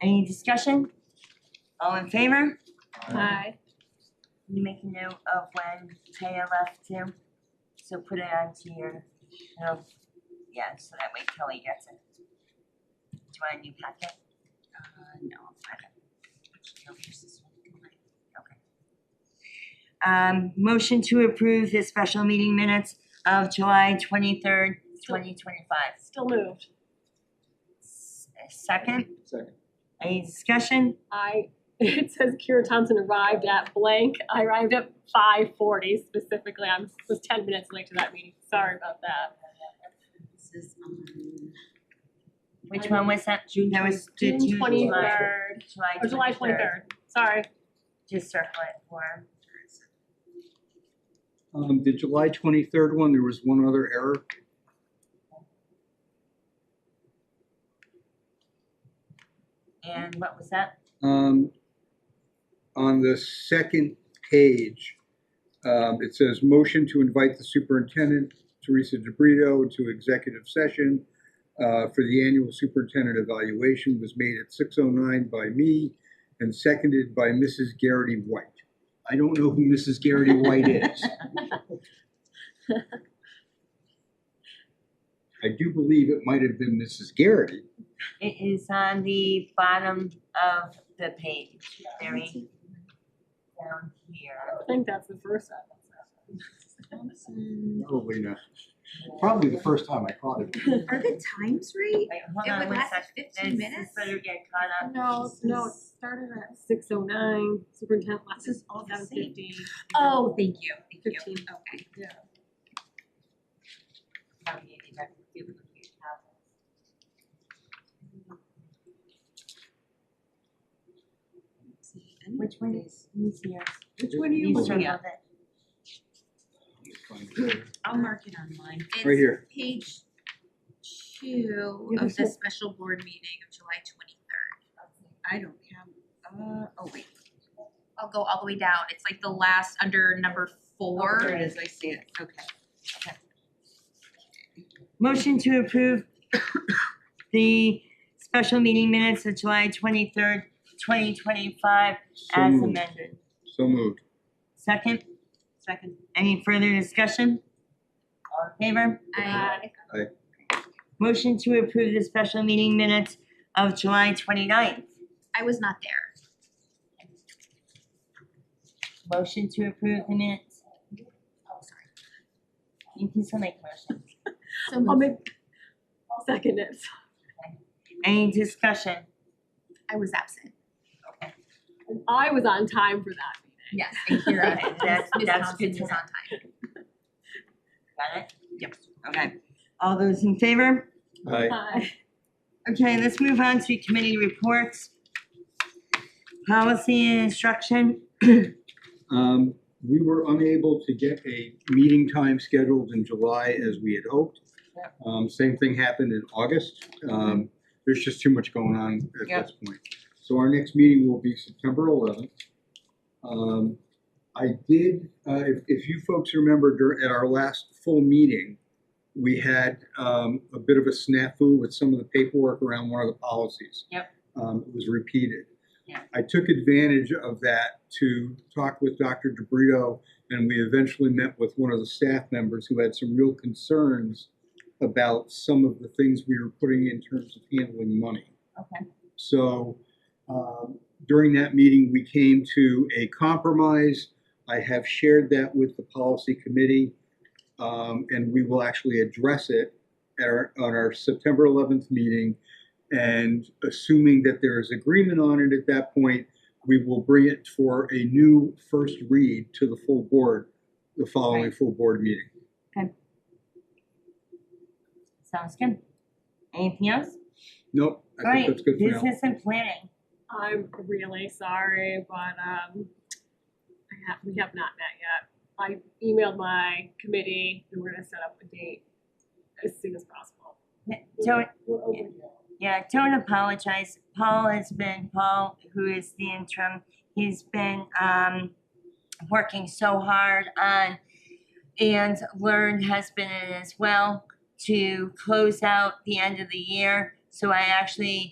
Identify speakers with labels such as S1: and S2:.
S1: Any discussion? All in favor?
S2: Aye.
S1: Can You make a note of when Taya left too, so put it onto your, you know, yeah, so that way Kelly gets it. Do you want a new packet? Uh, no, I don't. No, here's this one. Okay. Um, motion to approve the special meeting minutes of July twenty-third, twenty twenty-five.
S2: Still moved.
S1: Second,
S3: Second.
S1: any discussion?
S2: I, it says Kira Thompson arrived at blank. I arrived at five forty specifically. I was ten minutes late to that meeting. Sorry about that.
S4: This is on
S1: Which one was that?
S4: June
S1: That was the
S2: June
S1: July-
S2: twenty-third,
S1: July
S2: or July twenty-third. Sorry.
S1: Just circle it for.
S3: Um, the July twenty-third one, there was one other error.
S1: And what was that?
S3: Um, on the second page, um, it says motion to invite the superintendent, Teresa DeBrito, to executive session uh, for the annual superintendent evaluation was made at six oh nine by me and seconded by Mrs. Garrity White. I don't know who Mrs. Garrity White is. I do believe it might have been Mrs. Garrity.
S1: It is on the bottom of the page, very down here.
S2: I think that's the first
S4: Thompson.
S3: Probably not. Probably the first time I caught it.
S2: one.
S4: Are the times right?
S1: Wait, hold
S4: It
S1: on
S4: would
S1: one
S4: last
S1: second.
S4: 15
S1: This-
S4: minutes?
S1: This better get caught up.
S4: No, no, it started at.
S2: Six oh nine, superintendent last
S4: This is all the
S2: seven
S4: same.
S2: fifteen.
S4: Oh, thank you, thank you.
S2: Fifteen.
S4: Okay.
S1: How do you do that? Do you have it? Which one is easier?
S2: Which one are you
S1: You
S2: looking
S1: circle
S2: at?
S1: it.
S4: I'll mark it online.
S3: Right here.
S4: It's page two
S2: You can
S4: of the
S2: flip.
S4: special board meeting of July twenty-third. I don't have, uh, oh wait. I'll go all the way down. It's like the last under number four.
S1: there it
S4: is, I see it, okay.
S1: Motion to approve the special meeting minutes of July twenty-third, twenty twenty-five
S3: So
S1: as
S3: moved.
S1: amended.
S3: So moved.
S1: Second? Second. Any further discussion? All in favor?
S4: I,
S1: Motion to approve the special meeting minutes of July 29th.
S4: I was not there.
S1: Motion to approve the minutes.
S4: Oh, sorry.
S1: You can still make a motion.
S4: So
S1: Oh,
S2: I'll
S4: moved.
S2: make, I'll second it.
S1: Any discussion?
S4: I was absent.
S2: And I was on time for that meeting.
S4: Yes, and Kira,
S1: Okay, that's-
S4: Ms.
S1: that's
S4: Thompson
S1: good to
S4: was on
S1: know.
S4: time.
S1: Got it? Yep. Okay. All those in favor?
S3: Aye.
S2: Aye.
S1: Okay, let's move on to committee reports. Policy and instruction.
S3: Um, we were unable to get a meeting time scheduled in July as we had hoped.
S1: Yep.
S3: Um, same thing happened in August. Um, there's just too much going on at
S1: Yep.
S3: this point. So our next meeting will be September eleventh. Um, I did, uh, if, if you folks remember dur- at our last full meeting, we had, um, a bit of a snafu with some of the paperwork around one of the policies.
S1: Yep.
S3: Um, it was repeated.
S1: Yeah.
S3: I took advantage of that to talk with Dr. DeBrito, and we eventually met with one of the staff members who had some real concerns about some of the things we were putting in terms of handling money.
S1: Okay.
S3: So um, during that meeting, we came to a compromise. I have shared that with the policy committee, um, and we will actually address it at our, on our September 11th meeting. And assuming that there is agreement on it at that point, we will bring it for a new first read to the full board, the following
S1: Right.
S3: full board meeting.
S1: Sounds good. Anything else?
S3: Nope, I think
S1: Right,
S3: that's good for now.
S1: business and planning.
S2: I'm really sorry, but um, I have, we have not met yet. I emailed my committee and we're gonna set up a date as soon as possible.
S1: Don't,
S2: We're open.
S1: Yeah, don't apologize. Paul has been, Paul, who is the interim, he's been um working so hard on and Learn has been in as well to close out the end of the year. So I actually